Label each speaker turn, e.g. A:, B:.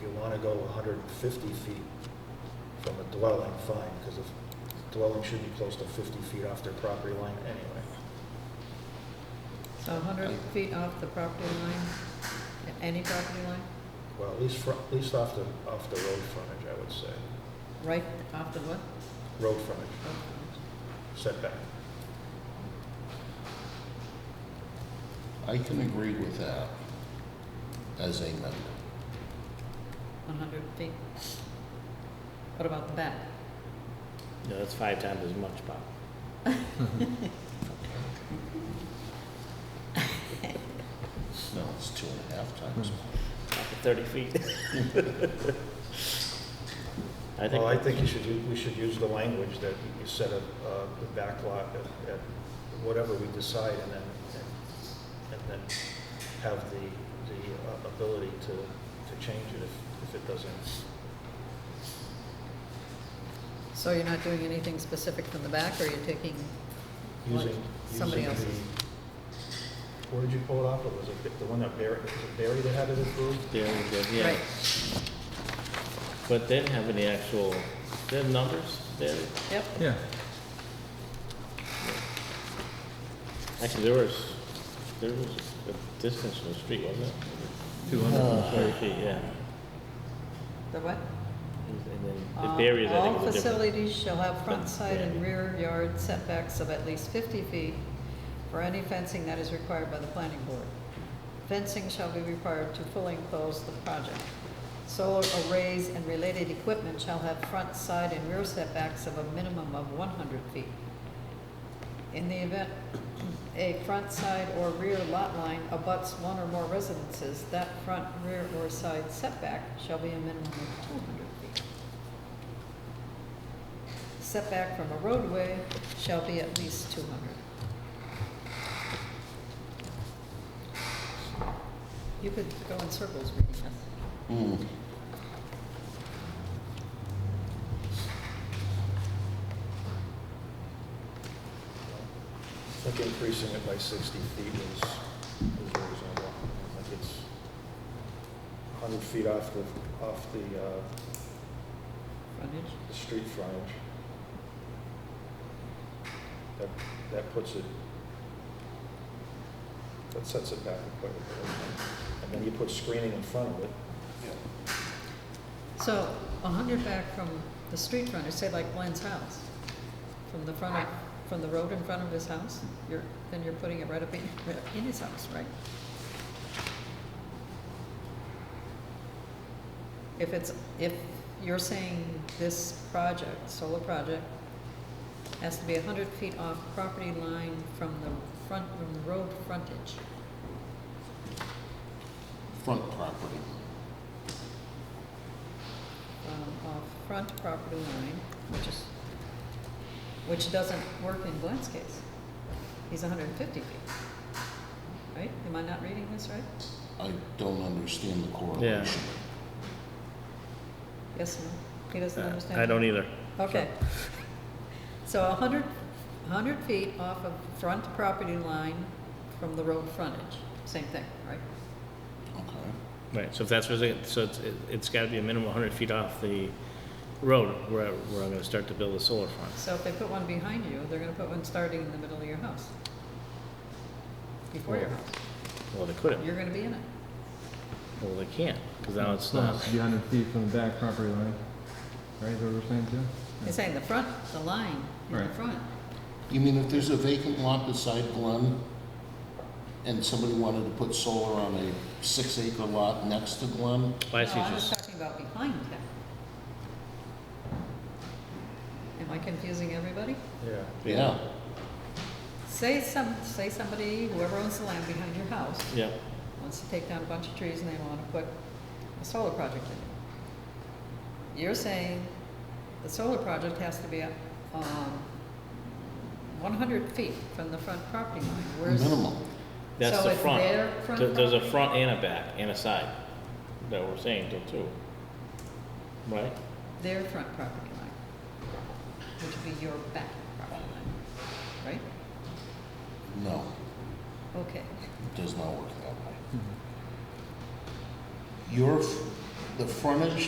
A: If you want to go 150 feet from a dwelling, fine, because a dwelling should be close to 50 feet off their property line anyway.
B: So 100 feet off the property line, any property line,
A: Well, at least, fro- at least off the, off the road frontage, I would say.
B: right off the what?
A: Road frontage setback.
C: I can agree with that as a member.
B: 100 feet. What about the back?
D: No, that's five times as much, Bob.
C: No, it's two and a half times.
D: Up to Thirty feet. I think.
A: Well, I think you should, u- we should use the language that you set up, uh, the back lot at, at whatever we decide and then, and- and then have the, the uh, ability to, to change it if, if it doesn't.
B: So you're not doing anything specific from the back, or you're taking, Like
A: Using,
B: somebody
A: using the,
B: else's.
A: where did you pull it off of? Was it the one that Barry, was it Barry that had it approved?
D: There we go, yeah.
B: right,
D: But then having the actual, the numbers, then,
B: yep,
E: Yeah,
D: actually, there was, there was a distance from the street, wasn't it?
E: 200
A: Uh,
D: Twenty feet, yeah.
B: the what?
D: And then the
B: Uh,
D: barriers, I think,
B: All
D: was a different.
B: facilities shall have front side and
D: Yeah.
B: rear yard setbacks of at least 50 feet for any fencing that is required by the planning board. Fencing shall be required to fully enclose the project. Solar arrays and related equipment shall have front side and rear setbacks of a minimum of 100 feet. In the event a front side or rear lot line abuts one or more residences, that front, rear, or side setback shall be a minimum of 200 feet. Setback from a roadway shall be at least 200. You could go in circles reading this.
C: Hmm.
A: I think increasing it by 60 feet is, is reasonable. I think it's 100 feet off the, off the, uh,
B: Frontage?
A: the street frontage. That, that puts it, that sets it back quite a bit. And then you put screening in front of it.
B: So 100 back from the street frontage, say like Glenn's house, from the front of, from the road in front of his house, you're, then you're putting it right up in, right up in his house, right? If it's, if you're saying this project, solar project, has to be 100 feet off property line from the front, from the road frontage,
C: Front property.
B: um, off front property line, which is, which doesn't work in Glenn's case. He's 150 feet, right? Am I not reading this right?
C: I don't understand the correlation.
B: Yes, no? He doesn't understand?
D: Uh, I don't either.
B: Okay. So 100, 100 feet off of front property line from the road frontage, same thing, right?
C: Okay.
D: Right, so if that's, what it- so it's, it- it's gotta be a minimum hundred feet off the road where, where I'm gonna start to build the solar farm.
B: So if they put one behind you, they're gonna put one starting in the middle of your house. Before your house.
D: Well, they couldn't,
B: You're gonna be in it.
D: well, they can't, because now it's
E: so it
D: not.
E: has to be 100 feet from the back property line, right, is that what we're saying too?
B: He's saying the front, the line, in the
E: Right.
B: front.
C: You mean if there's a vacant lot beside Glen and somebody wanted to put solar on a six acre lot next to Glen?
D: Why is he
B: No, I was
D: just,
B: talking about behind him. Am I confusing everybody?
A: Yeah.
C: Yeah.
B: Say some, say somebody, whoever owns the land behind your house,
D: yeah,
B: wants to take down a bunch of trees and they want to put a solar project in it. You're saying the solar project has to be up, um, one hundred feet from the front property line, where's?
C: Minimum.
D: that's
B: So
D: the
B: it's
D: front.
B: their front
D: There- There's a
B: property?
D: front and a back and a side that we're saying though too. Right?
B: Their front property line, which would be your back property line, right?
C: No,
B: Okay,
C: Hmm. it does not work that way. Your, f- the frontage